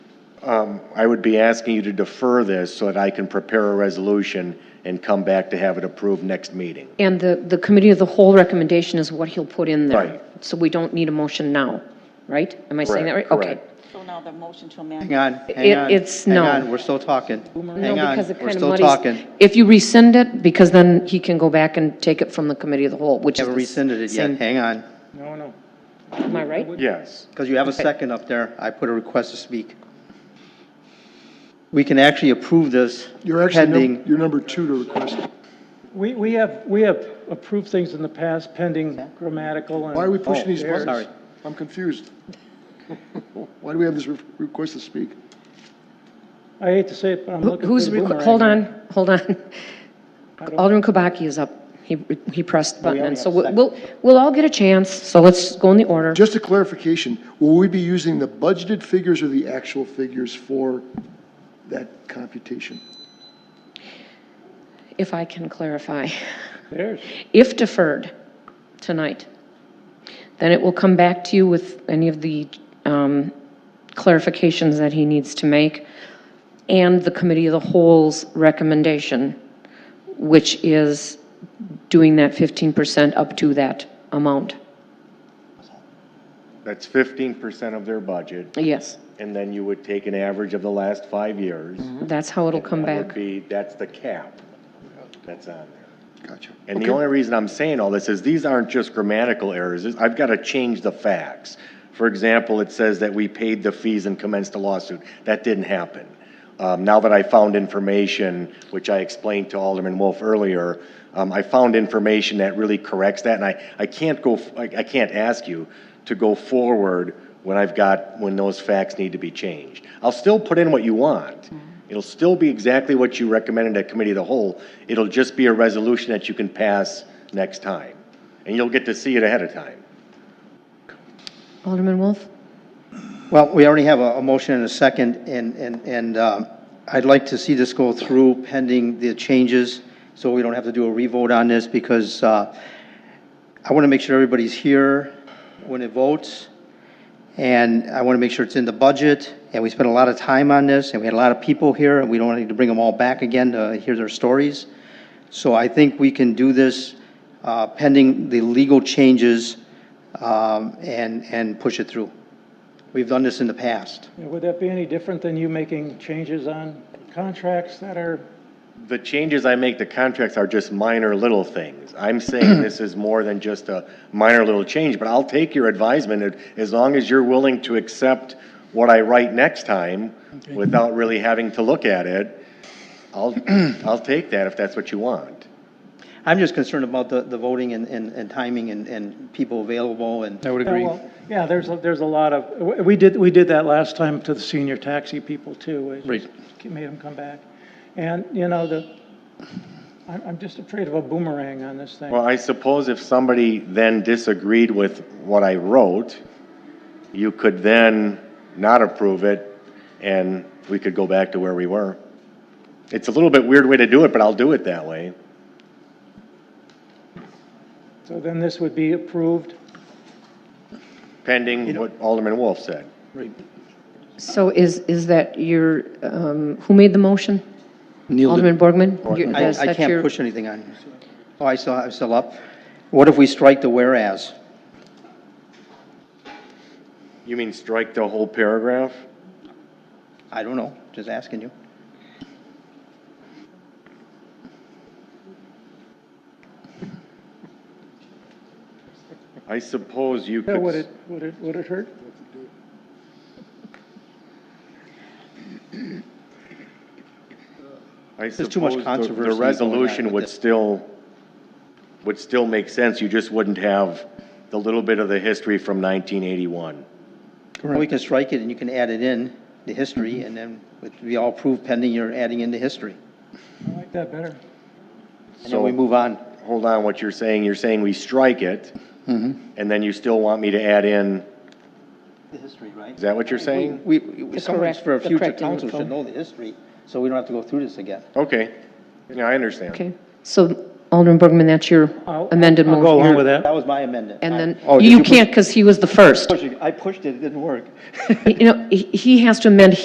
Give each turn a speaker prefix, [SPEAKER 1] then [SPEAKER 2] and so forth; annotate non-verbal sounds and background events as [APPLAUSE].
[SPEAKER 1] um, I would be asking you to defer this so that I can prepare a resolution and come back to have it approved next meeting.
[SPEAKER 2] And the, the committee of the whole recommendation is what he'll put in there.
[SPEAKER 1] Right.
[SPEAKER 2] So we don't need a motion now, right? Am I saying that right?
[SPEAKER 1] Correct,
[SPEAKER 2] Okay.
[SPEAKER 1] correct.
[SPEAKER 3] So now the motion to
[SPEAKER 4] Hang
[SPEAKER 3] amend,
[SPEAKER 4] on,
[SPEAKER 2] It-
[SPEAKER 4] hang on.
[SPEAKER 2] it's
[SPEAKER 4] hang
[SPEAKER 2] no.
[SPEAKER 4] on, We're still talking.
[SPEAKER 2] No,
[SPEAKER 4] Hang on,
[SPEAKER 2] because it
[SPEAKER 4] we're
[SPEAKER 2] kind of
[SPEAKER 4] still
[SPEAKER 2] muddies-
[SPEAKER 4] talking.
[SPEAKER 2] If you rescind it, because then he can go back and take it from the committee of the whole, which is.
[SPEAKER 4] Haven't
[SPEAKER 2] the
[SPEAKER 4] rescinded it
[SPEAKER 2] same-
[SPEAKER 4] yet, hang on.
[SPEAKER 1] No, no.
[SPEAKER 2] Am I right?
[SPEAKER 1] Yes.
[SPEAKER 4] Because you have a second up there, I put a request to speak. We can actually approve this
[SPEAKER 5] You're actually, num-
[SPEAKER 4] pending,
[SPEAKER 5] you're number two to request.
[SPEAKER 6] We, we have, we have approved things in the past pending grammatical and.
[SPEAKER 5] Why are we pushing these
[SPEAKER 6] errors.
[SPEAKER 5] buttons?
[SPEAKER 4] Oh, sorry.
[SPEAKER 5] I'm confused. [LAUGHS] Why do we have this re- request to speak?
[SPEAKER 6] I hate to say it, but I'm
[SPEAKER 2] Who-
[SPEAKER 6] looking for
[SPEAKER 2] Who's,
[SPEAKER 6] the
[SPEAKER 2] requ-
[SPEAKER 6] boomerang.
[SPEAKER 2] hold
[SPEAKER 6] here.
[SPEAKER 2] on, hold on. Alderman Kubaki is up. He, he pressed the button,
[SPEAKER 4] already
[SPEAKER 2] and so
[SPEAKER 4] have a
[SPEAKER 2] we'll, we'll- we'll all get a chance, so let's go in the order.
[SPEAKER 5] Just a clarification, will we be using the budgeted figures or the actual figures for that computation?
[SPEAKER 2] If I can clarify,
[SPEAKER 6] There's,
[SPEAKER 2] if deferred tonight, then it will come back to you with any of the um, clarifications that he needs to make and the committee of the whole's recommendation, which is doing that 15% up to that amount.
[SPEAKER 1] That's fifteen percent of their budget,
[SPEAKER 2] Yes,
[SPEAKER 1] and then you would take an average of the last five years.
[SPEAKER 2] that's how it'll come
[SPEAKER 1] That would
[SPEAKER 2] back.
[SPEAKER 1] be, that's the cap that's on there.
[SPEAKER 5] Gotcha.
[SPEAKER 1] And the only reason I'm saying all this is these aren't just grammatical errors. It's- I've got to change the facts. For example, it says that we paid the fees and commenced a lawsuit. That didn't happen. Um, now that I found information, which I explained to Alderman Wolf earlier, um, I found information that really corrects that. And I, I can't go, f- I, I can't ask you to go forward when I've got, when those facts need to be changed. I'll still put in what you want. It'll still be exactly what you recommended at committee of the whole. It'll just be a resolution that you can pass next time. And you'll get to see it ahead of time.
[SPEAKER 2] Alderman Wolf?
[SPEAKER 4] well, we already have a, a motion and a second, and, and, and um, I'd like to see this go through pending the changes, so we don't have to do a revote on this, because uh, I want to make sure everybody's here when it votes, and I want to make sure it's in the budget, and we spent a lot of time on this, and we had a lot of people here, and we don't need to bring them all back again to hear their stories. So I think we can do this uh, pending the legal changes um, and, and push it through. We've done this in the past.
[SPEAKER 6] would that be any different than you making changes on contracts that are,
[SPEAKER 1] The changes I make to contracts are just minor little things. I'm saying this is more than just a minor little change, but I'll take your advisement and as long as you're willing to accept what I write next time without really having to look at it, I'll, I'll take that if that's what you want.
[SPEAKER 4] I'm just concerned about the, the voting and, and and timing and, and people available and. I would
[SPEAKER 6] Yeah, well, yeah, there's, a- there's a lot of, we- we did, we did that last time to the senior taxi people too. We just Made them come back. And, you know, the, I'm, I'm just afraid of a boomerang on this thing.
[SPEAKER 1] Well, I suppose if somebody then disagreed with what I wrote, you could then not approve it, and we could go back to where we were. It's a little bit weird way to do it, but I'll do it that way.
[SPEAKER 6] So then this would be approved.
[SPEAKER 1] Pending what Alderman Wolf said.
[SPEAKER 2] So is, is that your, um, who made the motion? Alderman Borgman? You-
[SPEAKER 4] I,
[SPEAKER 2] is
[SPEAKER 4] I
[SPEAKER 2] that your-
[SPEAKER 4] can't push anything on you. Oh, I still, I'm still up. What if we strike the whereas?
[SPEAKER 1] You mean strike the whole paragraph?
[SPEAKER 4] I don't know, just asking you.
[SPEAKER 1] I suppose you
[SPEAKER 6] Yeah, Would
[SPEAKER 1] could,
[SPEAKER 6] it, would it, would it hurt?
[SPEAKER 1] I
[SPEAKER 4] There's too much
[SPEAKER 1] suppose the- the
[SPEAKER 4] controversy going on
[SPEAKER 1] resolution
[SPEAKER 4] with
[SPEAKER 1] would
[SPEAKER 4] this.
[SPEAKER 1] still, would still make sense. You just wouldn't have the little bit of the history from 1981.
[SPEAKER 4] We can strike it and you can add it in, the history, and then it'd be all approved pending you're adding in the history.
[SPEAKER 6] I like that better.
[SPEAKER 4] And then we
[SPEAKER 1] So-
[SPEAKER 4] move on.
[SPEAKER 1] hold on, what you're saying, you're saying we strike it, and then you still want me to add in,
[SPEAKER 4] The history, right?
[SPEAKER 1] is that what you're saying?
[SPEAKER 4] We, we- someone
[SPEAKER 2] correct-
[SPEAKER 4] for a
[SPEAKER 2] the
[SPEAKER 4] future
[SPEAKER 2] correct
[SPEAKER 4] council
[SPEAKER 2] info.
[SPEAKER 4] should know the history, so we don't have to go through this again.
[SPEAKER 1] Okay, yeah, I understand.
[SPEAKER 2] Okay, so Alderman Borgman, that's your
[SPEAKER 6] I'll-
[SPEAKER 2] amended
[SPEAKER 6] I'll
[SPEAKER 2] motion.
[SPEAKER 6] go along with that.
[SPEAKER 4] That was my amendment.
[SPEAKER 2] And then,
[SPEAKER 4] I- oh, did Oh,
[SPEAKER 2] you
[SPEAKER 4] push-
[SPEAKER 2] can't, because he was the first.
[SPEAKER 4] I pushed it, it didn't work.
[SPEAKER 2] You know, he- he has to amend